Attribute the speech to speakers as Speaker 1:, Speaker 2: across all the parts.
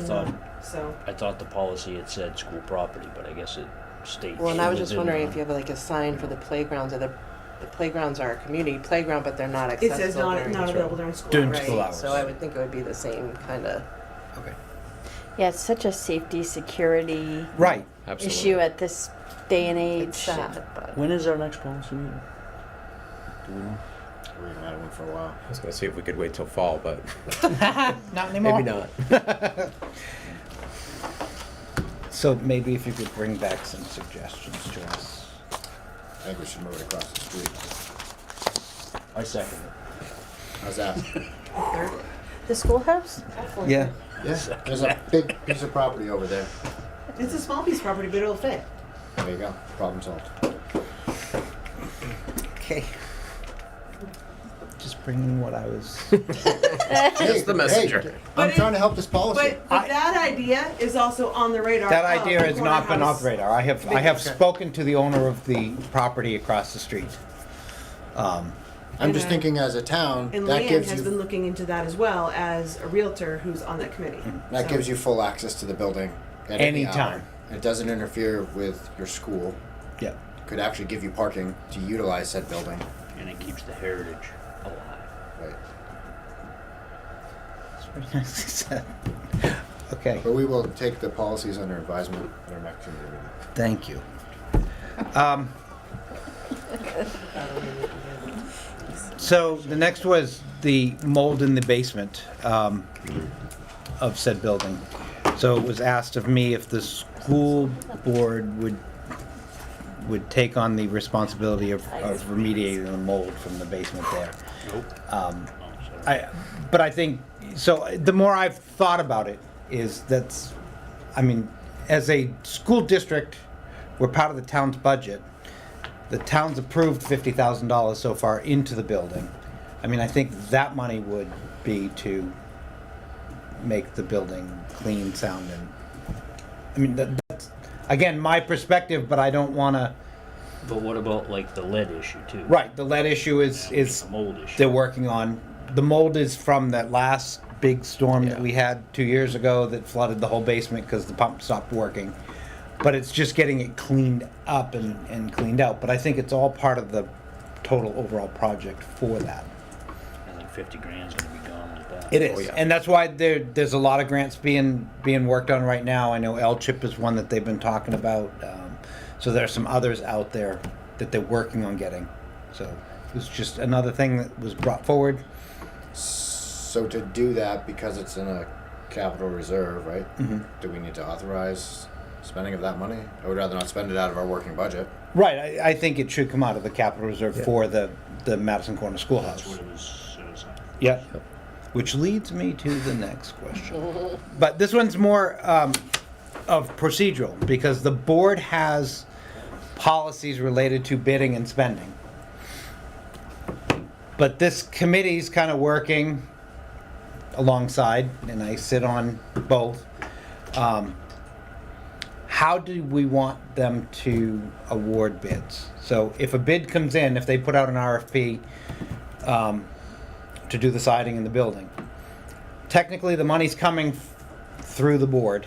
Speaker 1: thought,
Speaker 2: so.
Speaker 1: I thought the policy had said school property, but I guess it states.
Speaker 3: Well, and I was just
Speaker 1: within
Speaker 3: wondering
Speaker 1: the-
Speaker 3: if you have like a sign for the playgrounds, or the, the playgrounds are a community playground, but they're not
Speaker 2: It
Speaker 3: accessible
Speaker 2: says not,
Speaker 3: during.
Speaker 2: not
Speaker 1: right.
Speaker 2: available during school
Speaker 4: During
Speaker 2: hours.
Speaker 4: school hours.
Speaker 3: So I would think it would be the same kind of,
Speaker 4: Okay.
Speaker 5: Yeah, it's such a safety, security
Speaker 4: Right.
Speaker 5: issue at this day and
Speaker 3: it's
Speaker 5: age.
Speaker 3: sad, but.
Speaker 1: When is our next policy meeting? Do we know?
Speaker 6: We haven't had one for a while.
Speaker 7: I was gonna see if we could wait till fall, but
Speaker 4: Not
Speaker 7: maybe not.
Speaker 4: So maybe if you could bring back some suggestions to us.
Speaker 6: I think we should move it across the street.
Speaker 1: I second it.
Speaker 6: How's that?
Speaker 5: The schoolhouse?
Speaker 4: Yeah.
Speaker 6: Yeah, there's a big piece of property over there.
Speaker 2: It's a small piece of property, but it'll fit.
Speaker 6: There you go, problem solved.
Speaker 4: Okay. Just bringing what I was.
Speaker 6: Hey,
Speaker 7: the
Speaker 6: hey,
Speaker 7: messenger.
Speaker 6: I'm
Speaker 2: But
Speaker 6: trying
Speaker 2: it-
Speaker 6: to help this policy.
Speaker 2: But, but that idea is also on the radar.
Speaker 4: that
Speaker 2: of
Speaker 4: idea
Speaker 2: the
Speaker 4: has not been
Speaker 2: corner
Speaker 4: off
Speaker 2: house.
Speaker 4: radar. I have I have spoken to the owner of the property across the street. Um,
Speaker 6: I'm just thinking as a town,
Speaker 2: And
Speaker 6: that
Speaker 2: Leanne
Speaker 6: gives
Speaker 2: has been
Speaker 6: you,
Speaker 2: looking into that as well as a realtor who's on that committee.
Speaker 6: Hmm. that gives you full access to the building at any hour.
Speaker 4: Anytime.
Speaker 6: It doesn't interfere with your school.
Speaker 4: yeah.
Speaker 6: Could actually give you parking to utilize said building.
Speaker 1: And it keeps the heritage alive.
Speaker 6: Right.
Speaker 4: That's pretty nice. okay.
Speaker 6: But we will take the policies under advisement at our next committee meeting.
Speaker 4: Thank you. Um, so the next was the mold in the basement um, of said building. So it was asked of me if the school board would would take on the responsibility of, of remediating the mold from the basement there. Um, I, but I think so. The more I've thought about it, is that's, I mean, as a school district, we're part of the town's budget. The town's approved fifty thousand dollars so far into the building. I mean, I think that money would be to make the building clean, sound, and I mean that, that's again my perspective, but I don't want to.
Speaker 1: But what about like the lead issue too?
Speaker 4: Right, the lead issue is is
Speaker 1: The mold issue.
Speaker 4: they're working on. The mold is from that last big storm that we had two years ago that flooded the whole basement because the pump stopped working. But it's just getting it cleaned up and, and cleaned out. But I think it's all part of the total overall project for that.
Speaker 1: I think fifty grand's gonna be gone with that.
Speaker 4: It is,
Speaker 7: yeah.
Speaker 4: and that's why there there's a lot of grants being being worked on right now. I know L Chip is one that they've been talking about. Um, so there are some others out there that they're working on getting. So it was just another thing that was brought forward.
Speaker 6: So to do that, because it's in a capital reserve, right?
Speaker 4: Mm-hmm.
Speaker 6: Do we need to authorize spending of that money? I would rather not spend it out of our working budget.
Speaker 4: Right, I, I think it should come out of the capital reserve for the the Madison Corner Schoolhouse.
Speaker 1: That's what it was, it was like.
Speaker 4: Yep. Which leads me to the next question. But this one's more um, of procedural because the board has policies related to bidding and spending. But this committee's kind of working alongside, and I sit on both. Um, how do we want them to award bids? So if a bid comes in, if they put out an RFP, um, to do the siding in the building. Technically, the money's coming f- through the board.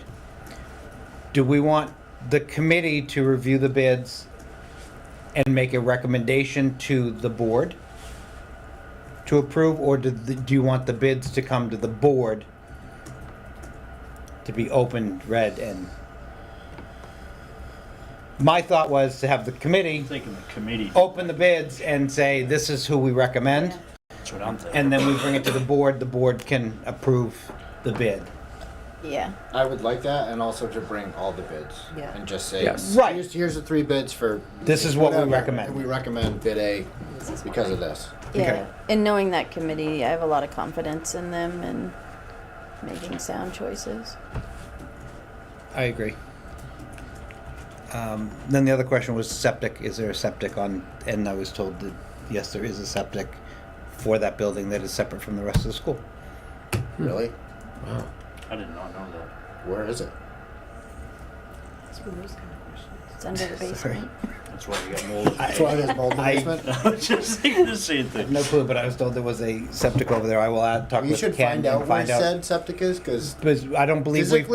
Speaker 4: Do we want the committee to review the bids and make a recommendation to the board to approve, or do, the- do you want the bids to come to the board to be opened, read, and? My thought was to have the committee
Speaker 1: I'm thinking the committee,
Speaker 4: open the bids and say, this is who we recommend.
Speaker 1: that's what I'm thinking.
Speaker 4: And then we bring it to the board, the board can approve the bid.
Speaker 5: Yeah.
Speaker 6: I would like that, and also to bring all the bids.
Speaker 3: Yeah.
Speaker 6: And just say,
Speaker 7: Yes.
Speaker 4: Right.
Speaker 6: here's, here's the three bids for.
Speaker 4: This is what we
Speaker 6: whatever,
Speaker 4: recommend.
Speaker 6: and We recommend bid A because of this.
Speaker 5: Yeah.
Speaker 4: Okay.
Speaker 5: And knowing that committee, I have a lot of confidence in them and making sound choices.
Speaker 4: I agree. Um, Then the other question was septic, is there a septic on, and I was told that, yes, there is a septic for that building that is separate from the rest of the school. Hmm.
Speaker 6: Really?
Speaker 7: Wow.
Speaker 1: I did not know that.
Speaker 6: Where is it?
Speaker 2: It's one of those kind of questions.
Speaker 5: It's under the
Speaker 4: Sorry.
Speaker 5: basement.
Speaker 1: That's why we got mold.
Speaker 6: That's why there's mold in the
Speaker 4: I-
Speaker 6: basement.
Speaker 1: I was just thinking the same
Speaker 4: I have
Speaker 1: thing.
Speaker 4: no clue, but I was told there was a septic over there, I will add, talk
Speaker 6: You
Speaker 4: with Ken
Speaker 6: should find
Speaker 4: and
Speaker 6: out where
Speaker 4: find out.
Speaker 6: said septic is, because
Speaker 4: Because I don't believe we've
Speaker 6: physically,